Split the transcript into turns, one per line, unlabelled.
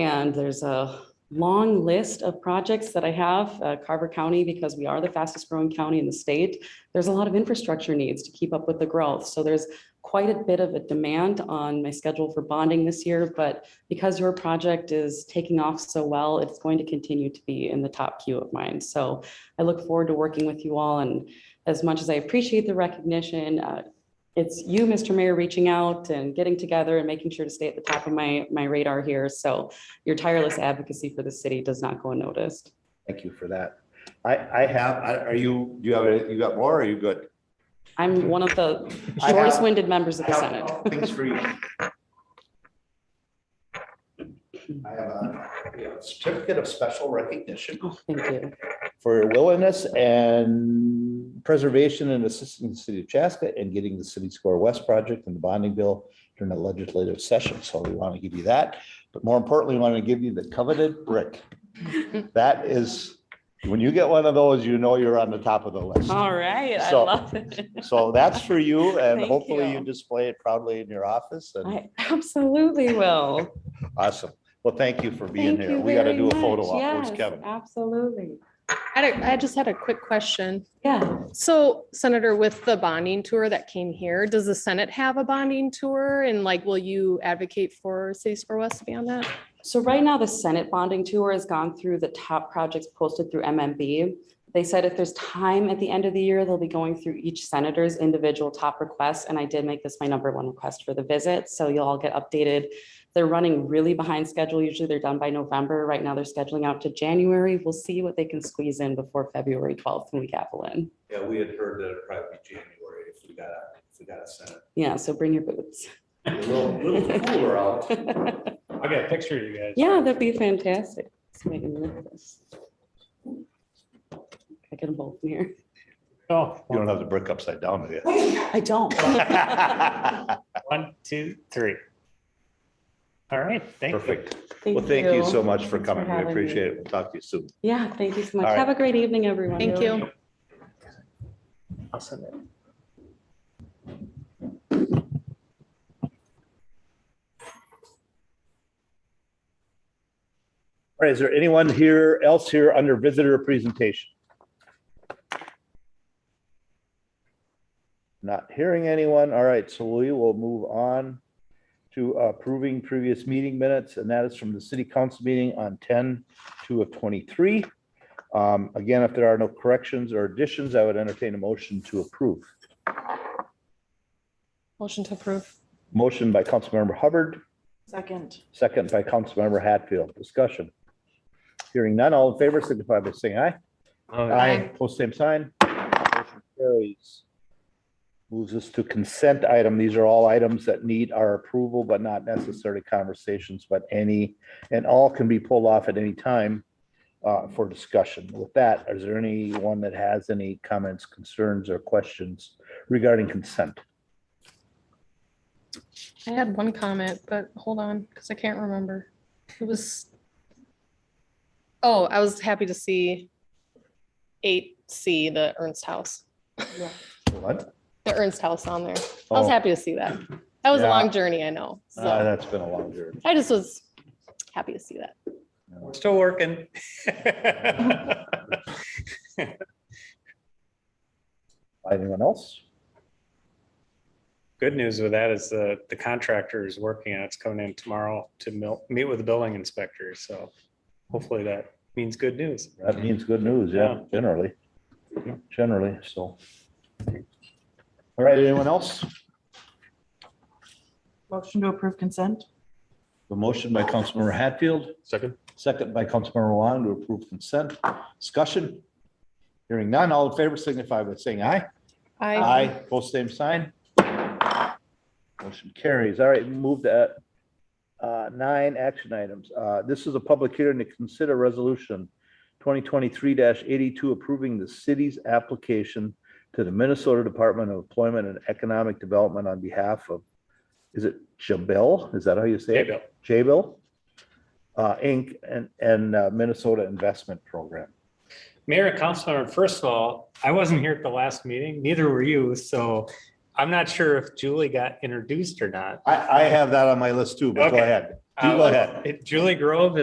And there's a long list of projects that I have, uh, Carver County, because we are the fastest growing county in the state. There's a lot of infrastructure needs to keep up with the growth. So there's quite a bit of a demand on my schedule for bonding this year. But because your project is taking off so well, it's going to continue to be in the top queue of mine. So I look forward to working with you all. And as much as I appreciate the recognition, uh, it's you, Mr. Mayor, reaching out and getting together and making sure to stay at the top of my, my radar here. So your tireless advocacy for the city does not go unnoticed.
Thank you for that. I, I have, I- are you, do you have, a- you got more, or are you good?
I'm one of the
I have-
shortest winded members of
I
the
have
Senate.
Things for you. I have a we have a certificate of special recognition
Oh, Thank you.
for your willingness and preservation and assisting the city of Chaska and getting the City Square West project and the bonding bill during the legislative session. So we want to give you that. But more importantly, we want to give you the coveted brick. That is, when you get one of those, you know you're on the top of the list.
All right, I
So-
love it.
So that's for you and
Thank
hopefully
you.
you display it proudly in your office and
I absolutely will.
awesome. Well, thank you for being
Thank
here.
you
We got to
very
do a photo
much.
op. Where's
Yes,
Kevin?
Absolutely.
I had a- I just had a quick question.
Yeah,
So Senator, with the bonding tour that came here, does the Senate have a bonding tour? And like, will you advocate for City Square West to be on that?
So right now, the Senate bonding tour has gone through the top projects posted through MMB. They said if there's time at the end of the year, they'll be going through each senator's individual top requests. And I did make this my number one request for the visit, so you'll all get updated. They're running really behind schedule. Usually they're done by November. Right now, they're scheduling out to January. We'll see what they can squeeze in before February 12th when we gavel in.
Yeah, we had heard that it'd probably be January if we got a, if we got a Senate.
Yeah, so bring your boots.
A little, little cooler out.
I got a picture of you guys.
Yeah, that'd be fantastic. Let's make a move of this. I get them both in here.
Oh,
You don't have the brick upside down, do you?
I don't.
one, two, three. All right, thank you.
Perfect. Well, thank you so much for coming. We
having me.
appreciate it. We'll talk to you soon.
Yeah, thank you so much.
All right.
Have a great evening, everyone.
Thank you.
Awesome.
All right, is there anyone here else here under visitor presentation? Not hearing anyone. All right, so we will move on to approving previous meeting minutes, and that is from the city council meeting on 10 2 of 23. Um, Again, if there are no corrections or additions, I would entertain a motion to approve.
Motion to approve.
Motion by Councilmember Hubbard,
Second.
second by Councilmember Hatfield. Discussion. Hearing none, all in favor signify by saying aye. Aye. Post same sign. Motion Carries. Moves us to consent item. These are all items that need our approval, but not necessarily conversations, but any, and all can be pulled off at any time uh, for discussion. With that, is there anyone that has any comments, concerns, or questions regarding consent?
I had one comment, but hold on, because I can't remember. It was. Oh, I was happy to see eight C, the Ernst House,
What?
the Ernst House on there. I
Oh,
was happy to see that. That was a
Yeah.
long journey, I know.
uh,
So
That's been a long journey.
I just was happy to see that.
We're still working.
Anyone else?
Good news with that is the, the contractor is working on it. It's coming in tomorrow to mil- meet with the building inspector. So hopefully that means good news.
That means good news, yeah,
Yeah.
generally, generally, so. All right, anyone else?
Motion to approve consent?
A motion by Councilmember Hatfield,
Second?
second by Councilmember Juan to approve consent. Discussion? Hearing none, all in favor signify by saying aye.
I
Both same sign. Motion carries. All right, move to uh, nine action items. Uh, This is a public hearing to consider resolution twenty twenty-three eighty-two approving the city's application to the Minnesota Department of Employment and Economic Development on behalf of, is it Jabil? Is that how you say
Hey,
it?
Bill.
Jabil, uh, Inc. and, and uh, Minnesota Investment Program.
Mayor and Councilor, first of all, I wasn't here at the last meeting, neither were you. So I'm not sure if Julie got introduced or not.
I, I have that on my list too, but go
Okay.
ahead. You go ahead.
Uh, Julie Grove